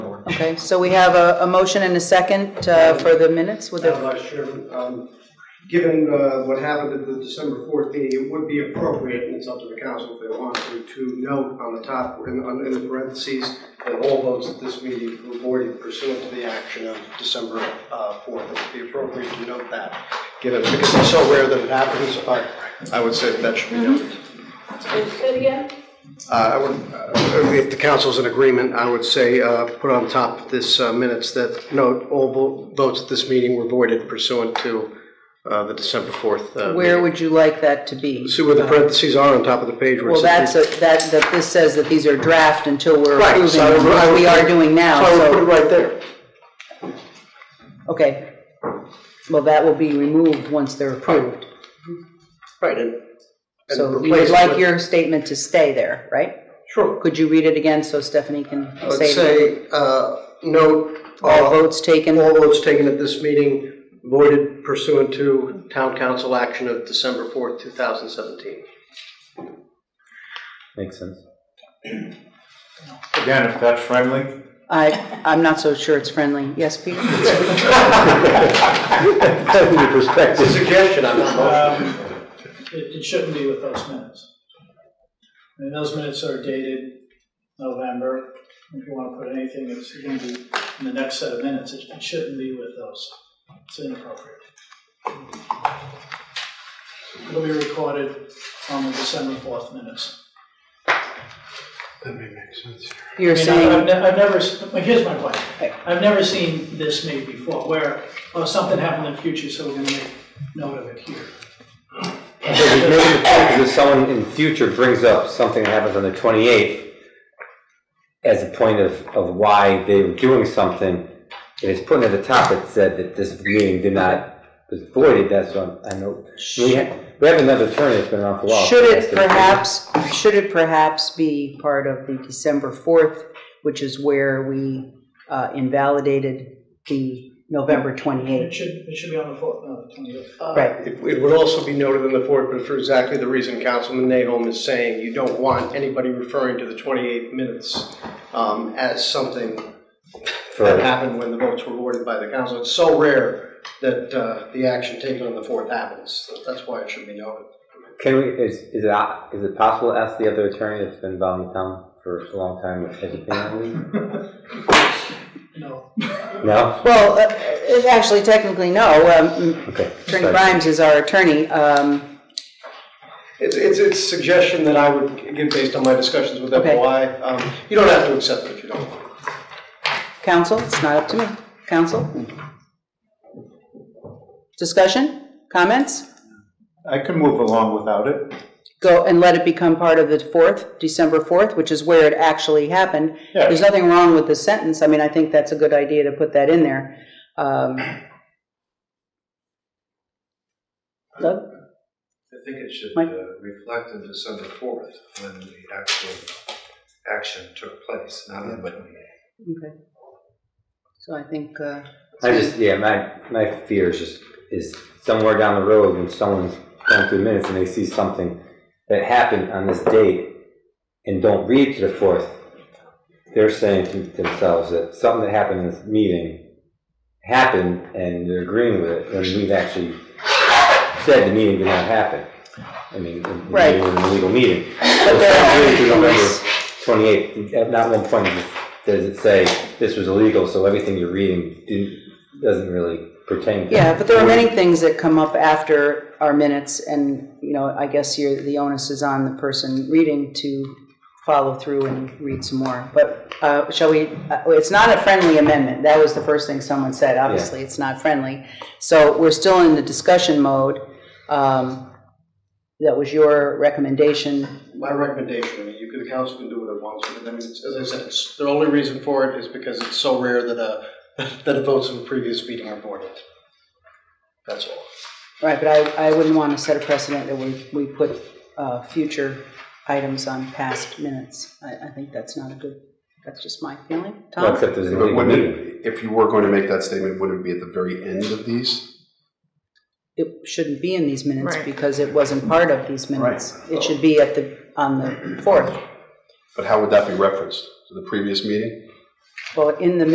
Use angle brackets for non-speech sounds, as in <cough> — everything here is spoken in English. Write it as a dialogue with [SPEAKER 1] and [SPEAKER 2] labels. [SPEAKER 1] Okay, so we have a, a motion and a second uh, for the minutes with the,
[SPEAKER 2] I'm not sure, um, given uh, what happened at the December fourth meeting, it would be appropriate, and it's up to the council if they want to, to note on the top, in, on- in the parentheses, that all votes at this meeting were voided pursuant to the action of December uh, fourth. It would be appropriate to note that, given, because it's so rare that it happens, I, I would say that should be noted. Uh, I would, uh, if the council's in agreement, I would say, uh, put on top of this uh, minutes that note, all vo- votes at this meeting were voided pursuant to uh, the December 4th.
[SPEAKER 1] where
[SPEAKER 2] uh, meeting.
[SPEAKER 1] would you like that to be?
[SPEAKER 2] See where the parentheses are on top of the page where it
[SPEAKER 1] Well,
[SPEAKER 2] says-
[SPEAKER 1] that's, a- that, that this says that these are draft until we're
[SPEAKER 2] Right,
[SPEAKER 1] approving,
[SPEAKER 2] so I would-
[SPEAKER 1] them,
[SPEAKER 2] I
[SPEAKER 1] which
[SPEAKER 2] would-
[SPEAKER 1] we are doing now,
[SPEAKER 2] So I would put it
[SPEAKER 1] so,
[SPEAKER 2] right there.
[SPEAKER 1] okay. Well, that will be removed once they're approved.
[SPEAKER 2] Right, and. and
[SPEAKER 1] So you would
[SPEAKER 2] replace it
[SPEAKER 1] like
[SPEAKER 2] with-
[SPEAKER 1] your statement to stay there, right?
[SPEAKER 2] Sure.
[SPEAKER 1] Could you read it again so Stephanie can
[SPEAKER 2] I would
[SPEAKER 1] say?
[SPEAKER 2] say, uh, note,
[SPEAKER 1] All
[SPEAKER 2] all
[SPEAKER 1] votes taken,
[SPEAKER 2] all votes taken at this meeting voided pursuant to town council action of December 4th, 2017.
[SPEAKER 3] Makes sense. Again, if that's friendly.
[SPEAKER 1] I, I'm not so sure it's friendly. Yes,
[SPEAKER 2] <laughs>
[SPEAKER 1] Peter?
[SPEAKER 3] Definitely perspective.
[SPEAKER 2] Suggestion, I'm not motion.
[SPEAKER 4] Um, It, it shouldn't be with those minutes. I mean, those minutes are dated November. If you want to put anything, it's going to be in the next set of minutes. It, it shouldn't be with those. It's inappropriate. It'll be recorded on the December fourth minutes.
[SPEAKER 2] That may make sense.
[SPEAKER 1] You're
[SPEAKER 4] I mean, I- I've
[SPEAKER 1] saying,
[SPEAKER 4] ne- I've never, s- well, here's my point. I've never seen this made before, where, oh, something happened in the future, so we're going to make note of it here.
[SPEAKER 3] Because it's maybe the point is if someone in the future brings up something that happens on the 28th as a point of, of why they were doing something, and it's put at the top, it said that this meeting did not, was voided, that's what I know. We ha- we have another attorney that's been around for a while.
[SPEAKER 1] should it perhaps, should it perhaps be part of the December 4th, which is where we uh, invalidated the November
[SPEAKER 4] It
[SPEAKER 1] 28th?
[SPEAKER 4] should, it should be on the fourth, not the twenty-eighth. Uh,
[SPEAKER 1] Right.
[SPEAKER 2] It it would also be noted in the fourth, but for exactly the reason Councilman Nahom is saying, you don't want anybody referring to the 28 minutes um, as something that
[SPEAKER 3] For,
[SPEAKER 2] happened when the votes were awarded by the council. It's so rare that uh, the action taken on the fourth happens. That's why it should be noted.
[SPEAKER 3] can we, is, is it, is it possible to ask the other attorney that's been involved in the town for a long time, has he been
[SPEAKER 1] <laughs>
[SPEAKER 3] on
[SPEAKER 4] No,
[SPEAKER 3] this? No?
[SPEAKER 1] Well, uh, uh, actually technically, no. Um,
[SPEAKER 3] Okay.
[SPEAKER 1] Attorney Grimes is our attorney. Um,
[SPEAKER 2] It's, it's it's a suggestion that I would give based on my discussions with
[SPEAKER 1] Okay.
[SPEAKER 2] FOI. Um, You don't have to accept it if you don't want.
[SPEAKER 1] Counsel, it's not up to me. Counsel? Discussion? Comments?
[SPEAKER 5] I can move along without it.
[SPEAKER 1] go and let it become part of the 4th, December 4th, which is where it actually happened.
[SPEAKER 5] Yeah.
[SPEAKER 1] There's nothing wrong with the sentence. I mean, I think that's a good idea to put that in there. Um, Doug?
[SPEAKER 6] I think it should
[SPEAKER 1] Mike?
[SPEAKER 6] uh, reflect on December fourth, when the actual action took place, not on the twenty-eighth.
[SPEAKER 1] Okay. So I think, uh,
[SPEAKER 3] I just, yeah, my, my fear is just, is somewhere down the road when someone's going through minutes and they see something that happened on this date and don't read to the fourth, they're saying to themselves that something that happened in this meeting happened and they're agreeing with it, when we've actually said the meeting did not happen. I mean, the
[SPEAKER 1] Right.
[SPEAKER 3] meeting was an illegal meeting.
[SPEAKER 1] but there are,
[SPEAKER 3] Twenty-eight, at not one point does- does it say this was illegal, so everything you're reading didn't, doesn't really pertain to.
[SPEAKER 1] yeah, but there are many things that come up after our minutes, and, you know, I guess you're, the onus is on the person reading to follow through and read some more. But uh, shall we, uh, it's not a friendly amendment. That was the first thing someone said. Obviously, it's not friendly. So we're still in the discussion mode. Um, That was your recommendation.
[SPEAKER 2] My recommendation, I mean, you can, the council can do what it wants, but I mean, it's- as I said, it's, the only reason for it is because it's so rare that, uh, <laughs> that the votes of a previous meeting are voided. That's all.
[SPEAKER 1] Right, but I, I wouldn't want to set a precedent that we, we put uh, future items on past minutes. I, I think that's not a good, that's just my feeling.
[SPEAKER 3] Well,
[SPEAKER 1] Tom?
[SPEAKER 3] Except there's an
[SPEAKER 7] But
[SPEAKER 3] illegal
[SPEAKER 7] wouldn't
[SPEAKER 3] meeting.
[SPEAKER 7] it, if you were going to make that statement, would it be at the very end of these?
[SPEAKER 1] It shouldn't be in these minutes
[SPEAKER 8] Right.
[SPEAKER 1] because it wasn't part of these minutes. It should be at the, on the fourth.
[SPEAKER 7] But how would that be referenced? To the previous meeting?
[SPEAKER 1] Well, in the